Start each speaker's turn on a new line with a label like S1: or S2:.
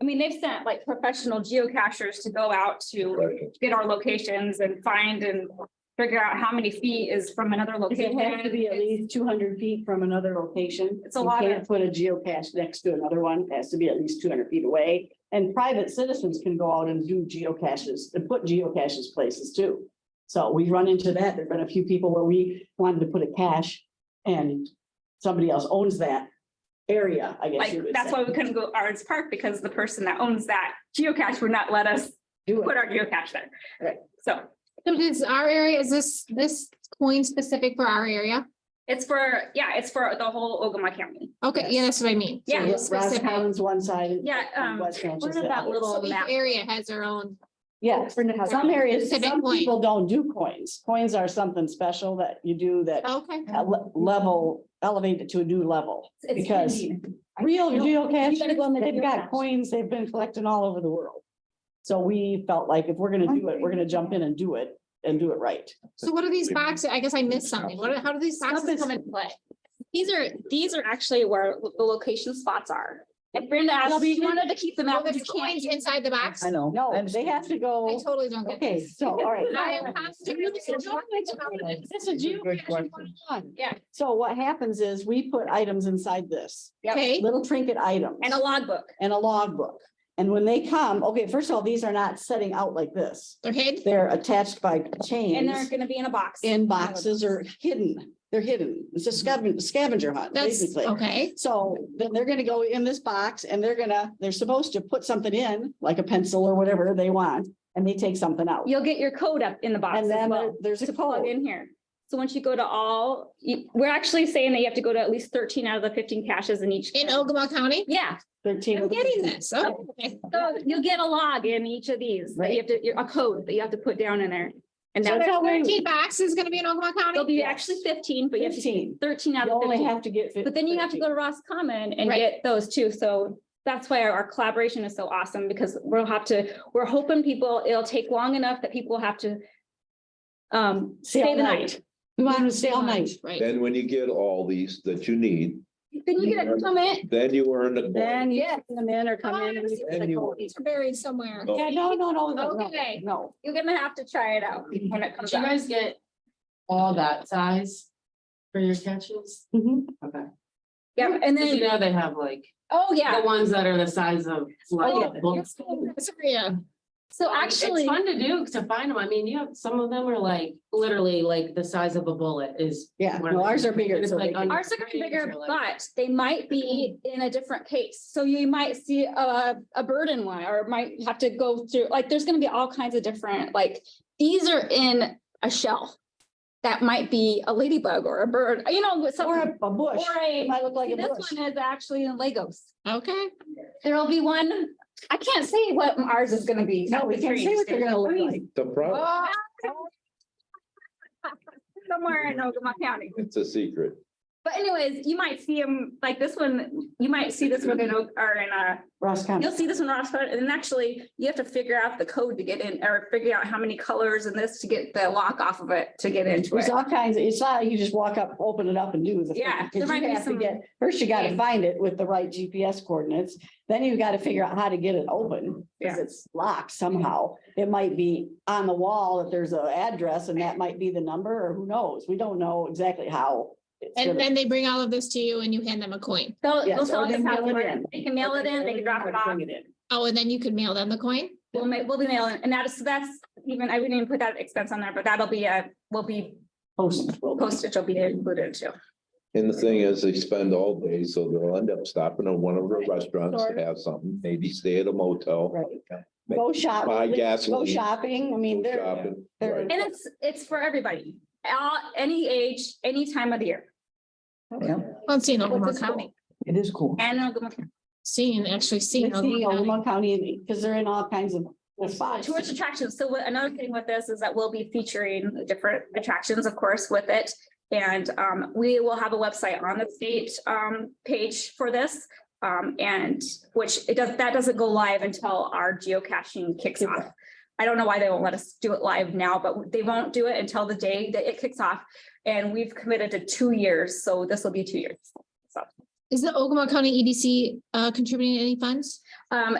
S1: I mean, they've sent like professional geocachers to go out to
S2: Right.
S1: get our locations and find and figure out how many feet is from another
S3: Because
S1: location.
S3: It has to be at least two hundred feet from another location.
S1: It's a lot of-
S3: You can't put a geocache next to another one. It has to be at least two hundred feet away. And private citizens can go out and do geocaches and put geocaches places too. So we've run into that. There've been a few people where we wanted to put a cache and somebody else owns that area, I guess
S1: Like,
S3: you would
S1: that's
S3: say.
S1: why we couldn't go Ards Park because the person that owns that geocache would not let us
S3: Do
S1: put
S3: it.
S1: our geocache there.
S3: Right.
S1: So
S4: So does our area, is this, this coin specific for our area?
S1: it's for, yeah, it's for the whole Ogama County.
S4: Okay, yeah, that's what I mean.
S1: Yeah.
S4: So it's
S3: Ross
S4: specific.
S3: Commons one side. and
S1: Yeah, um,
S3: West Branch
S1: what
S3: is the
S1: about
S3: other.
S1: little-
S4: So each
S1: map.
S4: area has their own.
S3: Yeah, for now, some areas,
S4: Civic
S3: some
S4: point.
S3: people don't do coins. Coins are something special that you do that
S4: Oh, Okay.
S3: ele- level, elevate it to a new level.
S1: It's
S3: Because
S1: Indian.
S3: Real
S1: No,
S3: geocache,
S1: you gotta go on the
S3: they've
S1: geocache.
S3: got coins they've been collecting all over the world. So we felt like if we're gonna do it, we're gonna jump in and do it and do it right.
S4: So what are these boxes? I guess I missed something. What, are- how do these
S3: Stuff
S4: boxes
S3: is-
S4: come into play?
S1: These are, these are actually where the location spots are. If Brenda asked,
S3: Shelby,
S1: she wanted to keep them
S4: Well,
S1: out, but you
S4: there's
S1: can't.
S4: coins inside the box? I
S3: know. No, they have to go,
S4: totally don't get
S3: okay,
S4: this.
S3: so, all right.
S4: I am constantly-
S3: This is geocache 101.
S1: Yeah.
S3: So what happens is we put items inside this,
S1: Yep.
S4: Okay,
S3: little trinket items.
S1: And a logbook.
S3: and a logbook. And when they come, okay, first of all, these are not setting out like this.
S4: they're hid.
S3: They're attached by
S1: And they're
S3: chains
S1: gonna be in a box.
S3: in boxes or hidden. They're hidden. It's a scavenger, scavenger hunt,
S4: That's,
S3: basically.
S4: okay,
S3: So then they're gonna go in this box and they're gonna, they're supposed to put something in, like a pencil or whatever they want, and they take something out.
S1: You'll get your code up in the box
S3: And
S1: as
S3: then
S1: well.
S3: there- there's
S1: to
S3: a
S1: plug
S3: code.
S1: in here. So once you go to all, you- we're actually saying that you have to go to at least thirteen out of the fifteen caches in each.
S4: in Ogama County?
S1: Yeah,
S3: Thirteen.
S4: I'm
S3: of the-
S4: getting this. Oh, Okay.
S1: so you'll get a log in each of these, that you have to, you're- a code that you have to put down in there. And
S3: So
S1: now
S3: that's how we-
S4: Thirteen boxes gonna be in Ogama
S1: there'll
S4: County?
S1: be actually fifteen, but you have to get
S3: Fifteen.
S1: thirteen out
S3: You
S1: of
S3: only
S1: fifteen.
S3: have to get. fif-
S1: But then you have to
S3: 15.
S1: go to Ross Common and
S4: Right.
S1: get those too. So that's why our- our collaboration is so awesome because we'll have to, we're hoping people, it'll take long enough that people have to um,
S3: Stay
S1: stay
S3: all
S1: the
S3: night.
S1: night.
S3: We want them to stay all night.
S4: Right.
S2: Then when you get all these that you need,
S1: Then you get a comment.
S2: then you earn a coin.
S3: Then you get them in or come in. and you get the
S2: Anyone.
S3: code.
S4: These are buried somewhere.
S2: No.
S3: Yeah, no, no, no, no, no,
S1: Okay.
S3: no.
S1: You're gonna have to try it out when it comes
S5: Do you
S1: out.
S5: guys get all that size for your catches?
S3: Mhm.
S5: Okay.
S1: Yeah, and
S5: Cause you
S1: then,
S5: know they have like,
S1: oh,
S5: the
S1: yeah,
S5: ones that are the size of. like,
S3: Oh,
S5: a book.
S4: Yeah.
S1: so
S5: It's
S1: actually,
S5: fun to do, to find them. I mean, you have, some of them are like, literally like the size of a bullet is.
S3: Yeah,
S5: one of
S3: no, ours
S5: the-
S3: are bigger.
S5: it's
S3: so
S5: like
S3: they-
S5: under-
S1: ours are gonna be bigger,
S5: Or like-
S1: but they might be in a different case. So you might see a, a bird in one, or might have to go through, like, there's gonna be all kinds of different, like, these are in a shell. That might be a ladybug or a bird, you know, some,
S3: Or
S1: or
S3: a- a bush. It
S1: a,
S3: might look like a
S1: this
S3: bush.
S1: one is actually in Legos.
S4: Okay.
S1: There'll be one, I can't say what ours is gonna be.
S3: No, we can't say what they're gonna look like.
S2: The
S3: Oh.
S2: problem,
S1: Somewhere in Ogama County.
S2: it's a secret.
S1: But anyways, you might see them, like this one, you might see this one in, Oak- or in uh, a,
S3: Ross
S1: you'll
S3: County.
S1: see this one, Ross, but- and then actually you have to figure out the code to get in, or figure out how many colors and this to get the lock off of it, to get into
S3: There's
S1: it.
S3: all kinds, of- it's not like you just walk up, open it up and do the. thing,
S1: Yeah,
S3: 'cause
S1: there
S3: you
S1: might be
S3: have to
S1: some-
S3: get- First, you gotta find it with the right GPS coordinates, then you gotta figure out how to get it open.
S1: Yeah.
S3: Cause it's locked somehow. It might be on the wall that there's an address and that might be the number or who knows? We don't know exactly how. it's
S4: And
S3: gonna-
S4: then they bring all of this to you and you hand them a coin.
S1: So
S3: Yes,
S1: they'll
S3: or
S1: sell us
S3: they
S1: a
S3: mail it
S1: password.
S3: in.
S1: They can mail it in, they can drop it off,
S3: Bring it in.
S4: Oh, and then you could mail them the coin?
S1: we'll make, we'll be mailing, and that is, so that's even, I wouldn't even put that expense on there, but that'll be a, will be
S3: Post. will be-
S1: postage will be included too.
S2: And the thing is, they spend all day, so they'll end up stopping at one of the restaurants to have something, maybe stay at a motel,
S3: Right. Go shop.
S2: buy
S3: Go
S2: gasoline.
S3: shopping. I mean,
S2: go
S3: they're,
S2: shopping,
S3: they're-
S2: right.
S1: And it's, it's for everybody, all, any age, any time of the year.
S4: I've seen
S3: But
S4: Ogama
S3: this
S4: County,
S6: It is cool.
S1: And Ogama County.
S4: seen, actually seen.
S3: it's
S4: Ogama
S3: the
S4: County.
S3: Ogama County, because they're in all kinds of spots.
S1: Tourist attractions. So what, another thing with this is that we'll be featuring different attractions, of course, with it. And um, we will have a website on the state um, page for this. Um, and which it does, that doesn't go live until our geocaching kicks off. I don't know why they won't let us do it live now, but they won't do it until the day that it kicks off. And we've committed to two years, so this will be two years.
S4: E Is the Ogama County EDC uh, contributing any funds?
S1: Um,